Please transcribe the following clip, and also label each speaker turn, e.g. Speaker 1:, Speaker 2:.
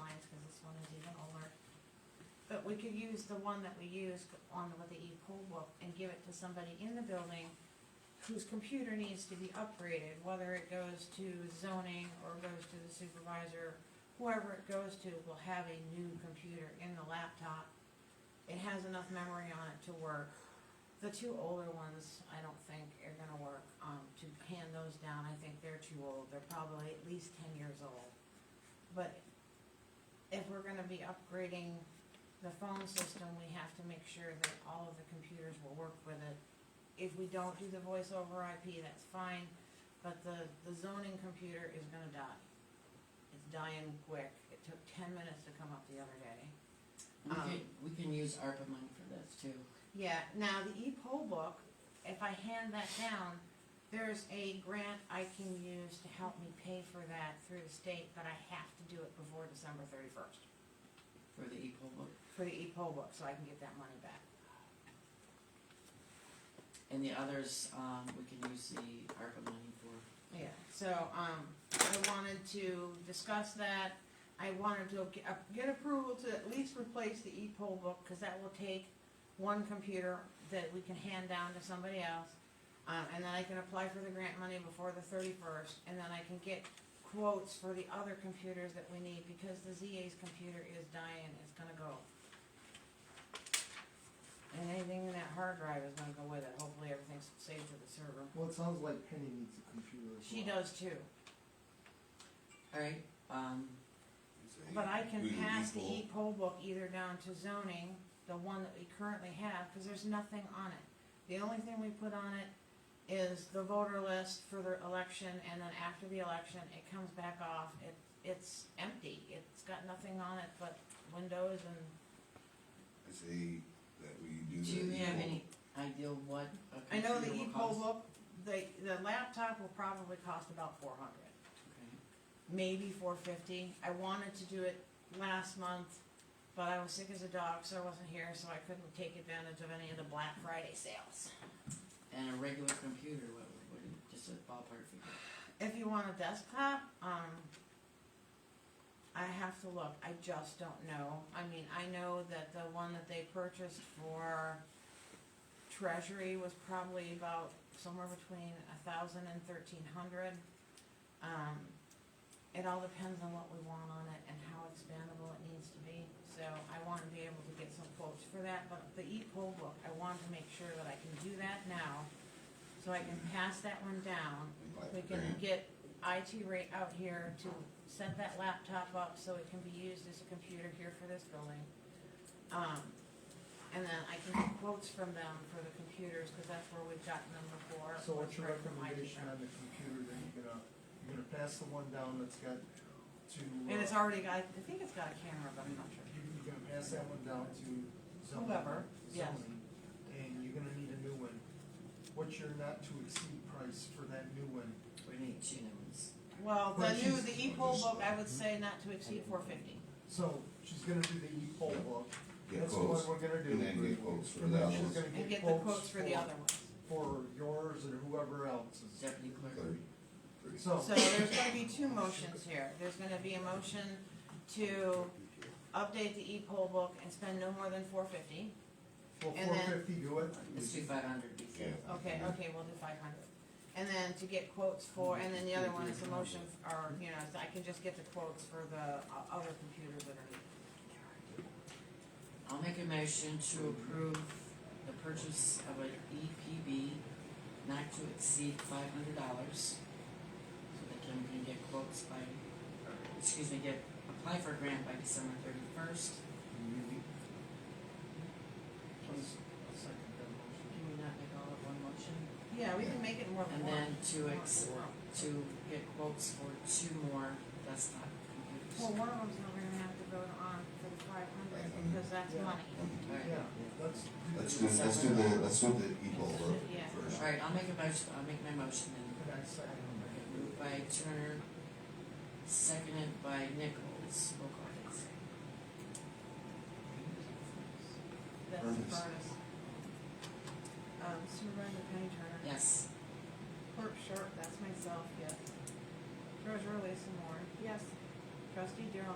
Speaker 1: one is even older. But we could use the one that we used on with the e-poll book and give it to somebody in the building whose computer needs to be upgraded, whether it goes to zoning or goes to the supervisor, whoever it goes to will have a new computer in the laptop. It has enough memory on it to work. The two older ones, I don't think are gonna work, um, to hand those down, I think they're too old, they're probably at least ten years old. But if we're gonna be upgrading the phone system, we have to make sure that all of the computers will work with it. If we don't do the voice over IP, that's fine, but the, the zoning computer is gonna die. It's dying quick, it took ten minutes to come up the other day.
Speaker 2: We
Speaker 1: Um,
Speaker 2: can, we can use ARPA money for this too.
Speaker 1: Yeah, now the e-poll book, if I hand that down, there's a grant I can use to help me pay for that through the state, but I have to do it before December thirty-first
Speaker 2: for the equal book.
Speaker 1: for the e-poll book, so I can get that money back.
Speaker 2: And the others, um, we can use the ARPA money for.
Speaker 1: Yeah, so, um, I wanted to discuss that, I wanted to get, uh, get approval to at least replace the e-poll book, cause that will take one computer that we can hand down to somebody else, um, and then I can apply for the grant money before the thirty-first, and then I can get quotes for the other computers that we need, because the ZA's computer is dying, it's gonna go. And anything in that hard drive is gonna go with it, hopefully everything's saved to the server.
Speaker 3: Well, it sounds like Penny needs a computer as
Speaker 1: She
Speaker 3: well.
Speaker 1: does too.
Speaker 2: Alright, um,
Speaker 1: But I can
Speaker 4: Do the
Speaker 1: pass the
Speaker 4: equal.
Speaker 1: e-poll book either down to zoning, the one that we currently have, cause there's nothing on it. The only thing we put on it is the voter list for the election, and then after the election, it comes back off, it, it's empty, it's got nothing on it but windows and.
Speaker 4: I say that we do
Speaker 2: do
Speaker 4: that.
Speaker 2: you have
Speaker 4: equal.
Speaker 2: any idea what a
Speaker 1: I
Speaker 2: computer
Speaker 1: know
Speaker 2: will cost?
Speaker 1: the e-poll book, the, the laptop will probably cost about four hundred.
Speaker 2: Okay,
Speaker 1: maybe four fifty. I wanted to do it last month, but I was sick as a dog, so I wasn't here, so I couldn't take advantage of any of the Black Friday sales.
Speaker 2: and a regular computer, what, what, just a ballpark figure.
Speaker 1: If you want a desktop, um, I have to look. I just don't know. I mean, I know that the one that they purchased for Treasury was probably about somewhere between a thousand and thirteen hundred. Um, it all depends on what we want on it and how expandable it needs to be. So I want to be able to get some quotes for that, but the E e-poll book, I want to make sure that I can do that now. So I can pass that one down
Speaker 4: Like
Speaker 1: we can get IT rate out here to set that laptop up so it can be used as a computer here for this building. Um, and then I can get quotes from them for the computers, cause that's where we've gotten them before.
Speaker 3: So what's your
Speaker 1: right from IT
Speaker 3: recommendation on the computer that you're gonna, you're gonna pass the one down that's got to. uh,
Speaker 1: And it's already got, I think it's got a camera, but I'm not sure.
Speaker 3: you- You're gonna pass that one down to zoning.
Speaker 1: Whoever, yes.
Speaker 3: zoning, And you're gonna need a new one. What's your not to exceed price for that new one?
Speaker 2: We need two new ones.
Speaker 1: Well, the
Speaker 3: Well,
Speaker 1: new,
Speaker 3: she's-
Speaker 1: the e-poll book, I would say not to exceed four fifty.
Speaker 3: So she's gonna do the e-poll book.
Speaker 4: Get
Speaker 3: That's what
Speaker 4: quotes,
Speaker 3: we're gonna do.
Speaker 4: and then get quotes for
Speaker 3: And
Speaker 4: the
Speaker 3: then
Speaker 4: other
Speaker 3: she's
Speaker 4: ones.
Speaker 3: gonna
Speaker 1: And get the quotes for the other ones.
Speaker 3: For yours and whoever else's.
Speaker 2: Deputy clerk,
Speaker 4: Thirty. Thirty.
Speaker 3: So.
Speaker 1: So there's gonna be two motions here. There's gonna be a motion to update the e-poll book and spend no more than four fifty.
Speaker 3: Will
Speaker 1: And
Speaker 3: four
Speaker 1: then-
Speaker 3: fifty do it?
Speaker 2: let's do five hundred before.
Speaker 4: Yeah.
Speaker 1: Okay,
Speaker 2: Mm-hmm.
Speaker 1: okay, we'll do five hundred. And then to get quotes for, and then the other one is the motion, or, you know, so I can just get the quotes for the uh, other computers that are needed.
Speaker 2: I'll make a motion to approve the purchase of an EPB not to exceed five hundred dollars. So that Kim can get quotes by, or, excuse me, get, apply for a grant by December thirty-first. Can
Speaker 3: I'll second that motion.
Speaker 2: can we not make all of one motion?
Speaker 1: Yeah, we can make it more than
Speaker 2: And
Speaker 1: one.
Speaker 2: then to ex,
Speaker 1: Well,
Speaker 2: to get quotes for two more desktop computers.
Speaker 1: one of them's not gonna have to vote on for the five hundred, because that's
Speaker 3: Yeah.
Speaker 1: money.
Speaker 2: Alright,
Speaker 3: Yeah, let's do
Speaker 4: Let's
Speaker 3: this.
Speaker 4: do, let's do the, let's do the equal work
Speaker 1: Yeah.
Speaker 4: first.
Speaker 2: alright, I'll make a motion, I'll make my motion then.
Speaker 3: Can I second
Speaker 2: Okay,
Speaker 3: that?
Speaker 2: Moved by Turner, seconded by Nichols. Roll call, please.
Speaker 1: That's the
Speaker 4: Ernest.
Speaker 1: furnace. Um, Sue Ryan, Penny Turner.
Speaker 2: Yes.
Speaker 1: Clerk Sharp, that's myself, yes. Treasurer Lisa Moore. Yes. Trustee Daryl